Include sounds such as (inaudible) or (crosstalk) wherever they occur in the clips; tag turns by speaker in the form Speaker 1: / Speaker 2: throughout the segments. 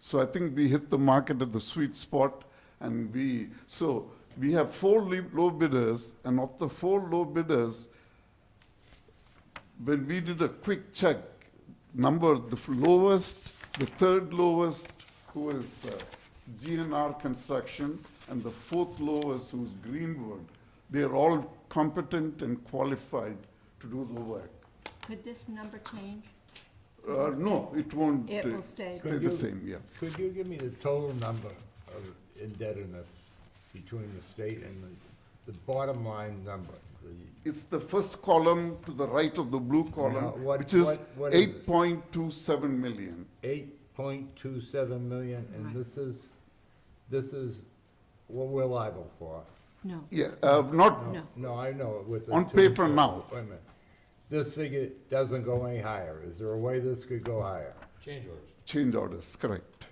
Speaker 1: So I think we hit the market at the sweet spot and we, so we have four le- low bidders and of the four low bidders, when we did a quick check, number, the f- lowest, the third lowest, who is uh, GNR Construction, and the fourth lowest, who's Greenwood, they're all competent and qualified to do the work.
Speaker 2: Could this number change?
Speaker 1: Uh, No, it won't.
Speaker 2: It
Speaker 1: uh,
Speaker 2: will stay.
Speaker 1: Stay the same, yeah.
Speaker 3: Could you give me the total number of indebtedness between the state and the, the bottom line number? the-
Speaker 1: It's the first column to the right of the blue
Speaker 3: Now,
Speaker 1: column,
Speaker 3: Uh-huh. what-
Speaker 1: which is
Speaker 3: what- what is it?
Speaker 1: 8.27 million.
Speaker 3: Eight point two seven million, and
Speaker 2: Right.
Speaker 3: this is, this is what we're liable for.
Speaker 2: No.
Speaker 1: Yeah, uh, not,
Speaker 2: No.
Speaker 3: No, I know it with the.
Speaker 1: On
Speaker 3: two-
Speaker 1: paper now.
Speaker 3: Wait a minute. This figure doesn't go any higher. Is there a way this could go higher?
Speaker 4: Change orders.
Speaker 1: change orders, correct.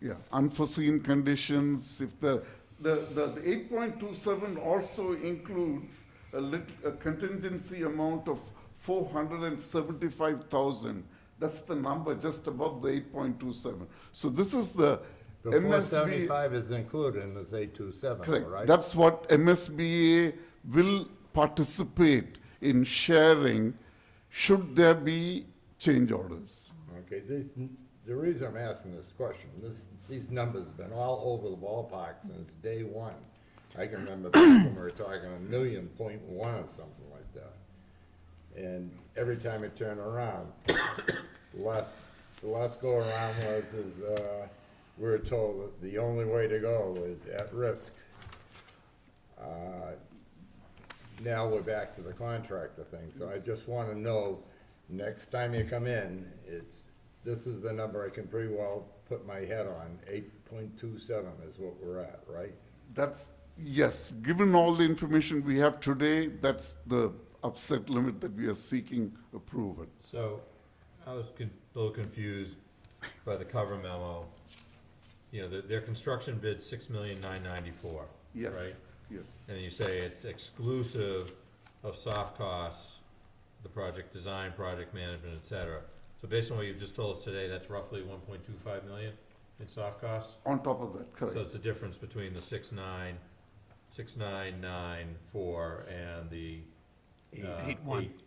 Speaker 1: Yeah, unforeseen conditions, if the, the, the the 8.27 also includes a lit, a contingency amount of 475,000. That's the number just above the 8.27. So this is the
Speaker 3: The four
Speaker 1: MSB.
Speaker 3: seventy-five is included in this eight two seven, right?
Speaker 1: Correct. That's what MSBA will participate in sharing, should there be change orders.
Speaker 3: Okay, this, the reason I'm asking this question, this, these numbers have been all over the ballpark since day one. I can remember back when we were talking a million point one or something like that. And every time I turn around, last, the last go around was, is, uh, we were told that the only way to go is at risk. Uh, now we're back to the contractor thing, so I just wanna know, next time you come in, it's, this is the number I can pretty well put my head on, eight point two seven is what we're at, right?
Speaker 1: That's, yes, given all the information we have today, that's the upset limit that we are seeking approval.
Speaker 4: So I was con- a little confused by the cover memo. You know, their, their construction bid six million nine ninety-four. Right?
Speaker 1: Yes, yes,
Speaker 4: And you say it's exclusive of soft costs, the project design, project management, et cetera. So based on what you've just told us today, that's roughly one point two five million in soft costs?
Speaker 1: on top of that,
Speaker 4: So
Speaker 1: correct.
Speaker 4: it's the difference between the six nine, six nine nine four and the, uh,
Speaker 5: eight one.
Speaker 4: eight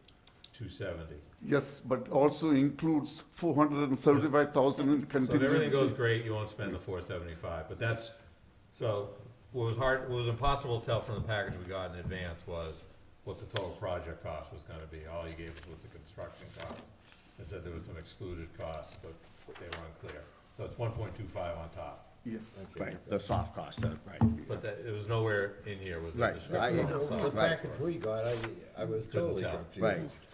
Speaker 4: two seventy.
Speaker 1: Yes, but also includes 475,000 in
Speaker 4: So if everything goes
Speaker 1: contingency.
Speaker 4: great, you won't spend the four seventy-five, but that's, so, what was hard, what was impossible to tell from the package we got in advance was what the total project cost was gonna be, all you gave us was the construction cost, and said there was some excluded costs, but they were unclear. So it's one point two five on top,
Speaker 1: Yes,
Speaker 5: Right, the soft cost, that's right.
Speaker 4: but that, it was nowhere in here, was there?
Speaker 5: Right,
Speaker 4: description
Speaker 5: I-
Speaker 4: of the
Speaker 3: The
Speaker 4: soft
Speaker 3: package
Speaker 4: cost.
Speaker 3: we got, I, I was
Speaker 4: Couldn't
Speaker 3: totally
Speaker 4: tell.
Speaker 5: Right.
Speaker 3: confused.
Speaker 2: You're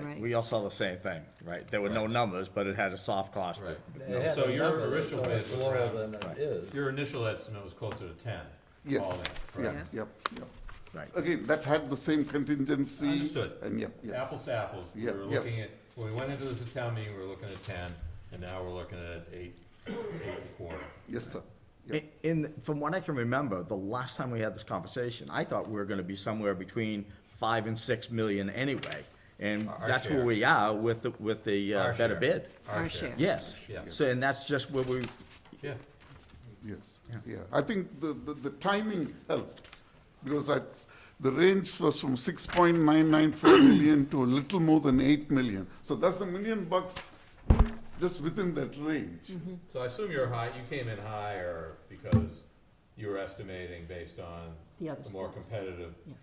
Speaker 5: Right.
Speaker 2: right.
Speaker 5: We all saw the same thing, right? There were no numbers, but it had a soft cost.
Speaker 4: Right.
Speaker 3: It had
Speaker 4: So
Speaker 3: a
Speaker 4: your
Speaker 3: number that's
Speaker 4: original
Speaker 3: so much
Speaker 4: bid was
Speaker 3: Lower
Speaker 4: around-
Speaker 3: than it is.
Speaker 4: Your initial estimate was closer to ten. all
Speaker 1: yes,
Speaker 4: in,
Speaker 1: yeah,
Speaker 4: correct?
Speaker 2: Yeah.
Speaker 1: yep, yep.
Speaker 5: Right.
Speaker 1: Again, that had the same contingency.
Speaker 4: Understood.
Speaker 1: And yep, yes.
Speaker 4: apples to apples, we
Speaker 1: Yeah,
Speaker 4: were
Speaker 1: yes.
Speaker 4: looking at, when we went into this at town meeting, we were looking at ten, and now we're looking at eight, eight and a quarter.
Speaker 1: Yes, sir. Yeah.
Speaker 5: In- In, from what I can remember, the last time we had this conversation, I thought we were gonna be somewhere between five and six million anyway. And
Speaker 4: Our
Speaker 5: that's where
Speaker 4: share.
Speaker 5: we are with, the with the
Speaker 4: Our
Speaker 5: uh, better
Speaker 4: share.
Speaker 5: bid.
Speaker 2: Our share.
Speaker 5: Yes.
Speaker 4: Yeah.
Speaker 5: So, and that's just where we,
Speaker 4: Yeah,
Speaker 1: Yes, yeah. I think the, the, the timing helped because that's, the range was from six point nine nine four (coughs) million to a little more than eight million. So that's a million bucks just within that range.
Speaker 4: so I assume you're high, you came in higher because you were estimating based on
Speaker 2: The other
Speaker 4: the more
Speaker 2: schools.
Speaker 4: competitive
Speaker 2: Yeah.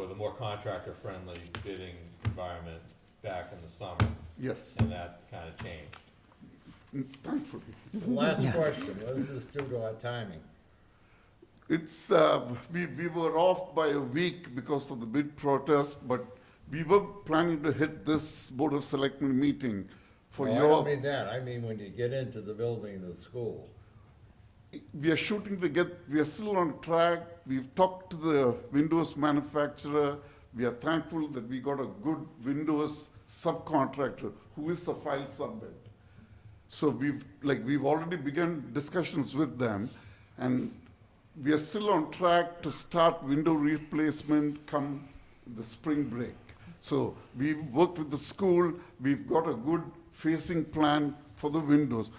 Speaker 4: or the more contractor-friendly bidding environment back in the summer,
Speaker 1: Yes,
Speaker 4: and that kind of changed.
Speaker 1: thankfully.
Speaker 3: Last question, what is this due to our timing?
Speaker 1: It's, uh, we, we were off by a week because of the bid protest, but we were planning to hit this Board of Selectmen meeting for
Speaker 3: Oh,
Speaker 1: your.
Speaker 3: I don't mean that, I mean when you get into the building of the school.
Speaker 1: we are shooting to get, we are still on track. We've talked to the Windows manufacturer. We are thankful that we got a good Windows subcontractor who is a file subbed. So we've, like, we've already begun discussions with them, and we are still on track to start window replacement come the spring break. So we've worked with the school, we've got a good facing plan for the windows.